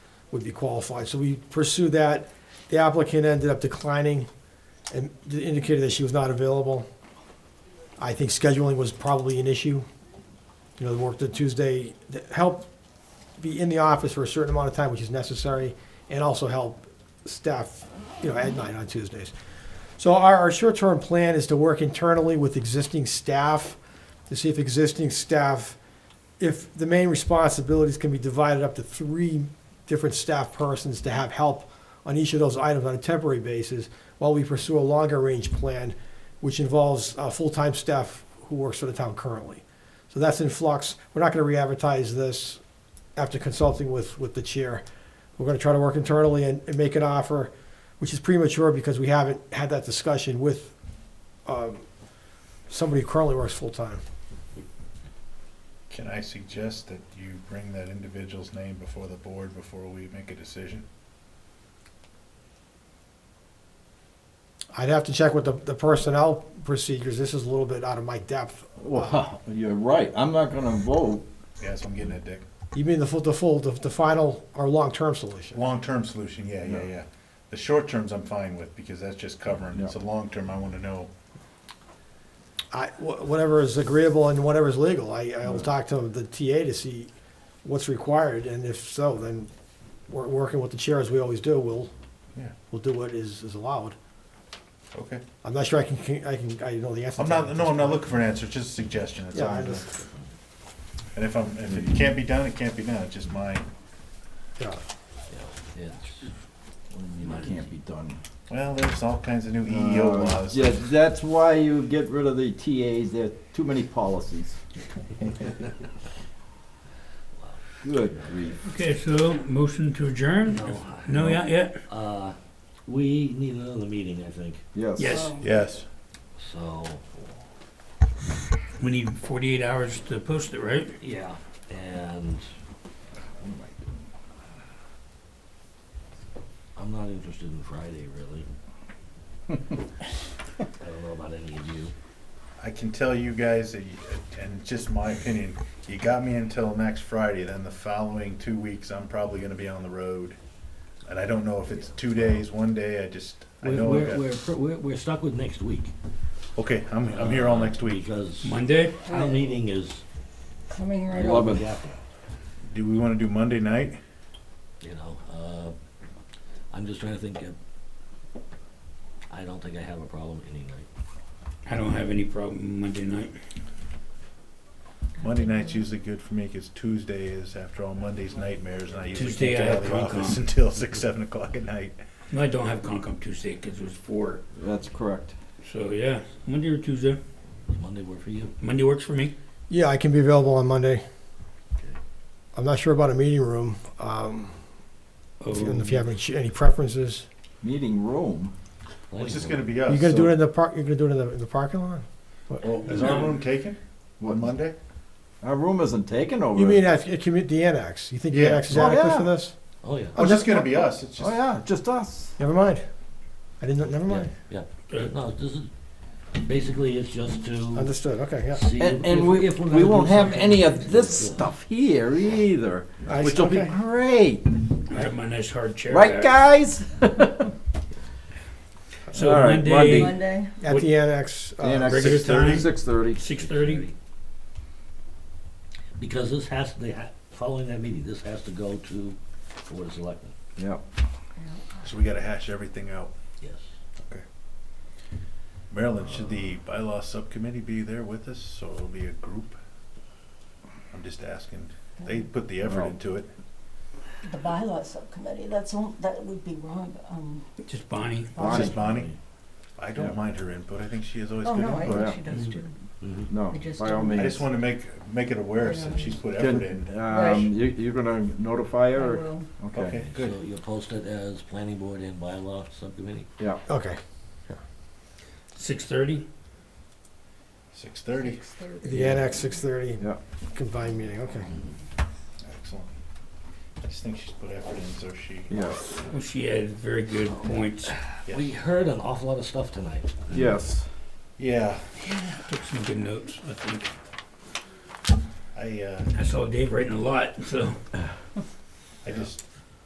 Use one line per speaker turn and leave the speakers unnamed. would be qualified. So we pursued that. The applicant ended up declining and indicated that she was not available. I think scheduling was probably an issue. You know, the work the Tuesday, the- help be in the office for a certain amount of time, which is necessary, and also help staff, you know, at night on Tuesdays. So our, our short-term plan is to work internally with existing staff to see if existing staff, if the main responsibilities can be divided up to three different staff persons to have help on each of those items on a temporary basis while we pursue a longer-range plan, which involves uh, full-time staff who works for the town currently. So that's in flux. We're not going to re-advertise this after consulting with, with the chair. We're going to try to work internally and, and make an offer, which is premature because we haven't had that discussion with um, somebody who currently works full-time.
Can I suggest that you bring that individual's name before the board before we make a decision?
I'd have to check with the, the personnel procedures. This is a little bit out of my depth.
Well, you're right. I'm not gonna vote.
Yes, I'm getting it, Dick.
You mean the full, the full, the, the final or long-term solution?
Long-term solution, yeah, yeah,
Yeah.
yeah. The short terms I'm fine with because that's just covering. It's a
Yeah.
long-term, I want to know.
I, wh- whatever is agreeable and whatever is legal, I, I'll
Mm-hmm.
talk to the TA to see what's required, and if so, then we're working with the chair as we always do, we'll,
Yeah,
we'll do what is, is allowed.
okay.
I'm not sure I can, I can, I know the answer.
I'm
to that
not,
at
no,
this
I'm not
point.
looking for an answer, it's just a suggestion, that's all.
Yeah, I
I'm doing.
just,
And if I'm, if it can't be done, it can't be done, it's just my,
yeah.
It can't be done.
well, there's all kinds of new EEO
Uh,
laws.
Yeah, that's why you get rid of the TAs. There are too many policies. Good grief.
Okay, so motion to adjourn?
No,
No, not yet?
uh, we need another meeting, I think,
Yes.
Yes.
Yes.
so,
We need forty-eight hours to post it, right?
yeah, and I'm not interested in Friday, really. I don't know about any of you.
I can tell you guys, that you- and it's just my opinion, you got me until next Friday, then the following two weeks, I'm probably gonna be on the road. And I don't know if it's two days, one day, I just, I
We're,
know, I
we're,
got-
we're, pr- we're, we're stuck with next week.
okay, I'm, I'm here all next week.
Because
Monday?
our meeting is.
Coming right up.
Eleven.
Yeah.
Do we wanna do Monday night?
you know, uh, I'm just trying to think of, I don't think I have a problem any night.
I don't have any problem Monday night.
Monday night's usually good for me, cause Tuesday is, after all, Monday's nightmares, and I usually
Tuesday
can't
I
get out of
have
the office
Concom.
until six, seven o'clock at night.
No, I don't have Concom Tuesday because it was four.
That's correct.
So, yeah, Monday or Tuesday.
Does Monday work for you?
Monday works for me.
Yeah, I can be available on Monday. I'm not sure about a meeting room, um,
Oh,
if you- if you have any ch- any preferences.
Meeting room.
It's just gonna be us.
You're gonna do
so-
it in the park, you're gonna do it in the, in the parking lot?
Well, Is our room taken
What?
on Monday?
Our room isn't taken over.
You mean uh, at, at commu- the annex? You think the
Yeah.
annex is
Oh,
adequate
yeah.
for this?
Oh, yeah.
Oh, it's just gonna be us, it's
Oh,
just,
yeah, just us.
Never mind. I didn't, never
Yeah,
mind.
yeah.
uh,
No, this is, basically, it's just to
Understood, okay, yeah.
see if,
And, and we,
if we're gonna
we
do
won't have
something.
any of this
Yeah.
stuff here either,
I-
which will be
okay.
great.
I have my nice hard chair
Right,
back.
guys?
So
All right,
Monday,
Monday.
At the annex, uh,
And at
Regular
6:30?
time?
6:30.
six thirty?
Because this has, they ha, following that meeting, this has to go to the Board of Selectmen,
Yeah.
so we gotta hash everything out.
yes.
Marilyn, should the bylaw subcommittee be there with us, so it'll be a group? I'm just asking, they put the effort
Well-
into it.
The bylaw subcommittee, that's, all- that would be wrong, um.
Just Bonnie.
It's
Bonnie.
just Bonnie, I
Yeah.
don't mind her input, I think she has always
Oh,
good
no, I
input.
yeah.
think she does too.
Mhm.
No,
I just
by all
don't-
means.
I just wanna make, make it aware, since she's put effort in.
Can,
Right.
um, you, you're gonna notify
I
her? or-
will.
Okay, good.
So you'll post it as planning board and bylaw subcommittee?
Yeah,
uh, okay.
Six thirty?
Six thirty,
The annex, six thirty,
yeah.
combined meeting, okay.
excellent. I just think she's put effort in, so she.
Yes.
Well, Oh, she had very good points.
Yeah.
We heard an awful lot of stuff tonight.
Yes.
Yeah,
Took some good notes, I think.
I, uh,
I saw Dave writing a lot, so.
I just,